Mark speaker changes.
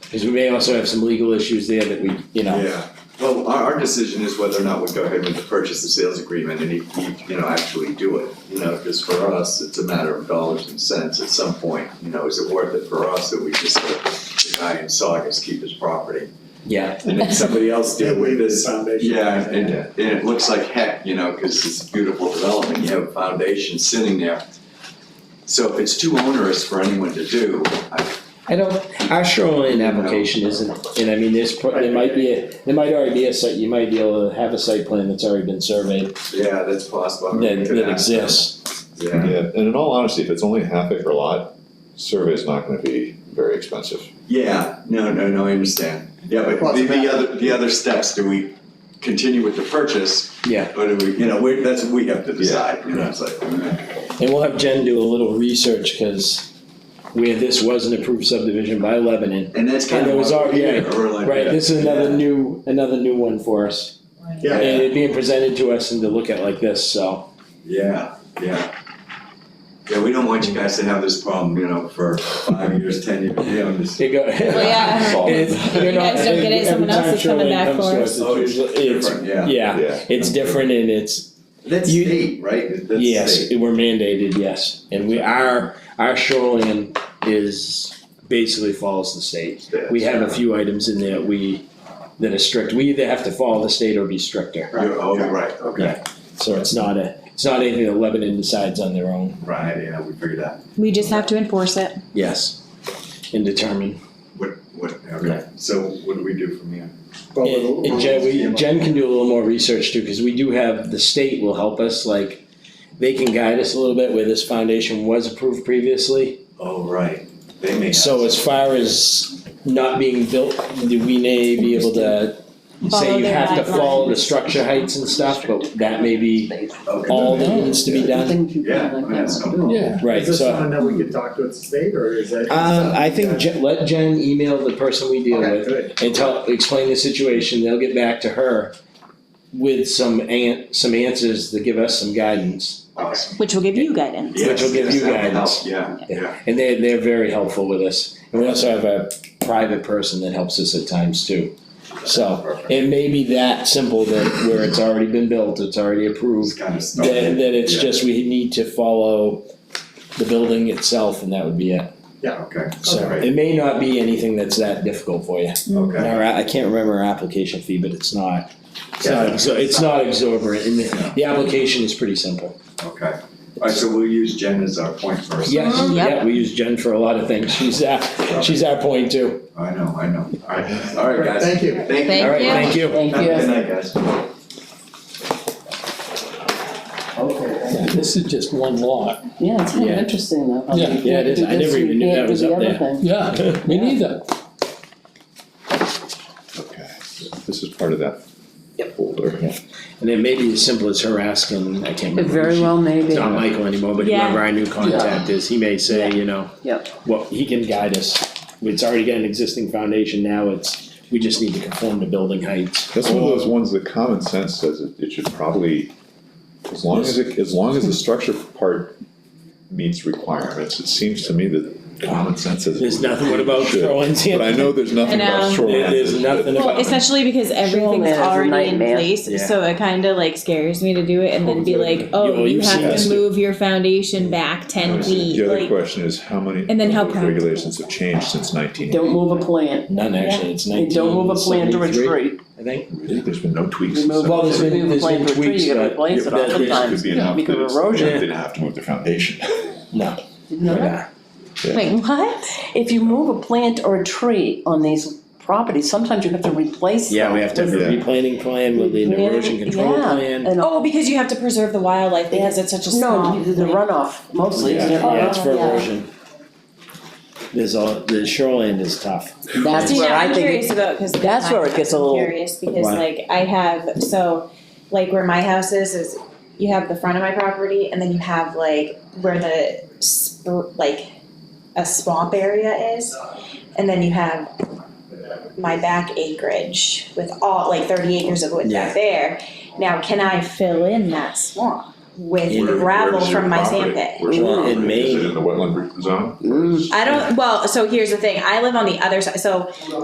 Speaker 1: Cause we may also have some legal issues there that we, you know,
Speaker 2: Yeah, well, our, our decision is whether or not we go ahead with the purchase and sales agreement and, you- you know, actually do it. You know, because for us, it's a matter of dollars and cents at some point, you know, is it worth it for us that we just let the guy in Saugus keep his property?
Speaker 1: yeah,
Speaker 2: And then somebody else deal with this.
Speaker 3: Foundation.
Speaker 2: Yeah, and, and it looks like heck, you know, because it's a beautiful development, you have a foundation sitting there. So if it's too onerous for anyone to do, I,
Speaker 1: I don't, our shoreline application isn't, and I mean, there's, pro- there might be, a- there might already be a site, you might be able to have a site plan that's already been surveyed
Speaker 2: yeah, that's possible. I mean, we
Speaker 1: that,
Speaker 2: could
Speaker 1: that
Speaker 2: ask them.
Speaker 1: exists.
Speaker 2: Yeah,
Speaker 4: Yeah, and in all honesty, if it's only a half acre lot, survey's not gonna be very expensive.
Speaker 2: Yeah, no, no, no, I understand. Yeah, but
Speaker 3: Well,
Speaker 2: the,
Speaker 3: it's
Speaker 2: the
Speaker 3: about-
Speaker 2: other, the other steps, do we continue with the purchase?
Speaker 1: Yeah.
Speaker 2: Or do we, you know, we, that's, what we have to decide, you know, it's like, mm,
Speaker 1: And we'll have Jen do a little research, cause where this was an approved subdivision by Lebanon,
Speaker 2: and that's kind
Speaker 1: And
Speaker 2: of
Speaker 1: it was
Speaker 2: what
Speaker 1: our-
Speaker 2: we
Speaker 1: yeah, right, this is another new, another new one for us. And
Speaker 3: Yeah,
Speaker 1: it's being presented to us and to look at like this, so,
Speaker 2: Yeah, yeah. Yeah, we don't want you guys to have this problem, you know, for five years, ten years, you know, this.
Speaker 1: it go.
Speaker 5: Well, yeah.
Speaker 1: It's, you
Speaker 5: You
Speaker 1: know,
Speaker 5: guys don't get it, someone
Speaker 1: every
Speaker 5: else
Speaker 1: time
Speaker 5: is coming
Speaker 1: Shoreline
Speaker 5: back
Speaker 1: comes
Speaker 5: for
Speaker 1: to
Speaker 5: us.
Speaker 1: us, it's usually, it's,
Speaker 2: Different, Oh, yeah.
Speaker 1: yeah,
Speaker 4: Yeah.
Speaker 1: it's different and it's,
Speaker 2: That's
Speaker 1: You-
Speaker 2: state, right? That's
Speaker 1: yes,
Speaker 2: state.
Speaker 1: we're mandated, yes. And we, our, our shoreline is, basically follows the state. We have a few items in there we, that are strict, we either have to follow the state or be stricter.
Speaker 2: You're- oh, right, okay,
Speaker 1: So it's not a, it's not anything that Lebanon decides on their own,
Speaker 2: right, yeah, we figured that.
Speaker 5: We just have to enforce it.
Speaker 1: yes, and determine.
Speaker 2: What, what, okay, so what do we do from here?
Speaker 3: but
Speaker 1: And and Jen, we, Jen can do a little more research too, cause we do have, the state will help us, like, they can guide us a little bit where this foundation was approved previously.
Speaker 2: Oh, right, they may have.
Speaker 1: So as far as not being built, do we may be able to say
Speaker 5: Follow
Speaker 1: you
Speaker 5: their
Speaker 1: have to follow the
Speaker 5: guidelines.
Speaker 1: structure heights and stuff, but that may be
Speaker 2: Okay.
Speaker 1: all that needs to be done?
Speaker 2: Yeah, I mean, that's no problem.
Speaker 4: Yeah.
Speaker 1: Right,
Speaker 3: Is this
Speaker 1: so,
Speaker 3: something that we could talk to at state or is that?
Speaker 1: um, I think Jen, let Jen email the person we deal
Speaker 3: Okay,
Speaker 1: with
Speaker 3: good.
Speaker 1: and tell, explain the situation, they'll get back to her with some an, some answers that give us some guidance.
Speaker 2: Awesome.
Speaker 5: Which will give you guidance.
Speaker 1: Which will give
Speaker 2: Yes,
Speaker 1: you
Speaker 2: that would
Speaker 1: guidance.
Speaker 2: help, Yeah, yeah.
Speaker 1: And they, they're very helpful with us. And we also have a private person that helps us at times too. So
Speaker 2: Perfect.
Speaker 1: it may be that simple that where it's already been built, it's already
Speaker 2: It's
Speaker 1: approved,
Speaker 2: kind of
Speaker 1: that,
Speaker 2: started.
Speaker 1: that it's
Speaker 2: Yeah.
Speaker 1: just we need to follow the building itself and that would be it.
Speaker 2: Okay,
Speaker 1: So
Speaker 2: Okay.
Speaker 1: it may not be anything that's that difficult for you. And
Speaker 2: okay.
Speaker 1: our, I can't remember our application fee, but it's not, it's not,
Speaker 2: Yeah.
Speaker 1: exor- it's not exorbitant. And the, the application is pretty simple.
Speaker 2: Okay. All right, so we'll use Jen as our point person.
Speaker 1: Yes,
Speaker 5: Mhm. Yep.
Speaker 1: yeah, we use Jen for a lot of things. She's, uh, she's our point too.
Speaker 2: I know, I know. All right, all right,
Speaker 3: Great,
Speaker 2: guys.
Speaker 3: Thank you.
Speaker 2: Thank you.
Speaker 5: Thank
Speaker 1: All right, thank you.
Speaker 2: Have a Good night, guys.
Speaker 6: Yeah, this is just one lot.
Speaker 7: Yeah, it's kind of
Speaker 1: Yeah.
Speaker 7: interesting though.
Speaker 6: Yeah.
Speaker 1: Yeah, it is. I never even knew that was up there.
Speaker 6: Yeah, me neither.
Speaker 4: Okay, this is part of that folder.
Speaker 1: And it may be as simple as her asking, I can't remember.
Speaker 7: It very
Speaker 1: who she-
Speaker 7: well may
Speaker 1: It's
Speaker 7: be.
Speaker 1: not Michael anymore, but
Speaker 5: Yeah.
Speaker 1: whoever our new contact is, he may say, you know.
Speaker 7: Yep.
Speaker 1: Well, he can guide us. It's already got an existing foundation now, it's, we just need to conform to building heights.
Speaker 4: That's one of those ones that common sense says it, it should probably, as long as it, as long as the structure part meets requirements, it seems to me that common sense says. it
Speaker 1: There's nothing, what about
Speaker 4: should.
Speaker 1: throwing sand?
Speaker 4: But I know there's nothing
Speaker 5: I
Speaker 4: about
Speaker 5: know.
Speaker 4: shoreline.
Speaker 1: There's nothing
Speaker 5: um, Well,
Speaker 1: about-
Speaker 5: especially because everything's
Speaker 7: Showman is a
Speaker 5: already in
Speaker 7: nightmare.
Speaker 5: place,
Speaker 1: Yeah.
Speaker 5: so it kind of like scares me to do it and then be like,
Speaker 1: Yeah, well,
Speaker 5: oh, you
Speaker 1: you've seen
Speaker 5: have
Speaker 1: us
Speaker 5: to
Speaker 1: do-
Speaker 5: move your foundation back ten feet,
Speaker 4: The other
Speaker 5: like,
Speaker 4: question is how many
Speaker 5: And then how
Speaker 4: of those
Speaker 5: practical.
Speaker 4: regulations have changed since nineteen?
Speaker 7: Don't move a plant.
Speaker 1: None actually, it's
Speaker 7: And
Speaker 1: nineteen
Speaker 7: don't move a plant to a
Speaker 1: seventy-three,
Speaker 7: tree.
Speaker 1: I think.
Speaker 4: Really? There's been no tweaks.
Speaker 7: You
Speaker 4: since
Speaker 7: move,
Speaker 1: Well, there's
Speaker 7: if you
Speaker 1: been-
Speaker 7: move a
Speaker 1: there's
Speaker 7: plant
Speaker 1: been
Speaker 7: to a tree,
Speaker 1: tweaks,
Speaker 7: you gotta
Speaker 1: but-
Speaker 7: replace it
Speaker 1: yeah, but-
Speaker 4: It
Speaker 7: oftentimes.
Speaker 4: could be enough
Speaker 7: because
Speaker 4: that
Speaker 7: of
Speaker 4: it's-
Speaker 7: erosion.
Speaker 4: they didn't have to move their foundation.
Speaker 1: No,
Speaker 7: Didn't know
Speaker 1: we're
Speaker 7: that.
Speaker 1: not.
Speaker 5: like, what?
Speaker 7: If you move a plant or a tree on these properties, sometimes you have to replace
Speaker 1: Yeah,
Speaker 7: them.
Speaker 1: we have to have a
Speaker 4: Yeah.
Speaker 1: replanting plan, we'll need an
Speaker 7: Yeah,
Speaker 1: erosion control
Speaker 7: yeah,
Speaker 1: plan.
Speaker 7: and-
Speaker 5: Oh, because you have to preserve the wildlife because it's such a small.
Speaker 7: No, the runoff mostly,
Speaker 1: Yeah,
Speaker 7: isn't it?
Speaker 1: yeah, it's for
Speaker 5: yeah.
Speaker 1: erosion. There's all, the shoreline is tough.
Speaker 7: That's
Speaker 5: See,
Speaker 7: where
Speaker 5: now
Speaker 7: I
Speaker 5: I'm
Speaker 7: think,
Speaker 5: curious
Speaker 7: it-
Speaker 5: about, cause.
Speaker 7: that's where it gets a
Speaker 5: I'm
Speaker 7: little-
Speaker 5: Curious, because
Speaker 1: Why?
Speaker 5: like I have, so, like where my house is, is you have the front of my property and then you have like where the sp- like a swamp area is. And then you have my back acreage with all, like thirty acres of woods
Speaker 1: Yeah.
Speaker 5: back there. Now, can I fill in that swamp with
Speaker 1: Where-
Speaker 5: gravel from my sand pit?
Speaker 1: In
Speaker 4: Is
Speaker 1: Maine.
Speaker 4: it in the wetland zone?
Speaker 7: Mm.
Speaker 5: I don't, well, so here's the thing, I live on the other side, so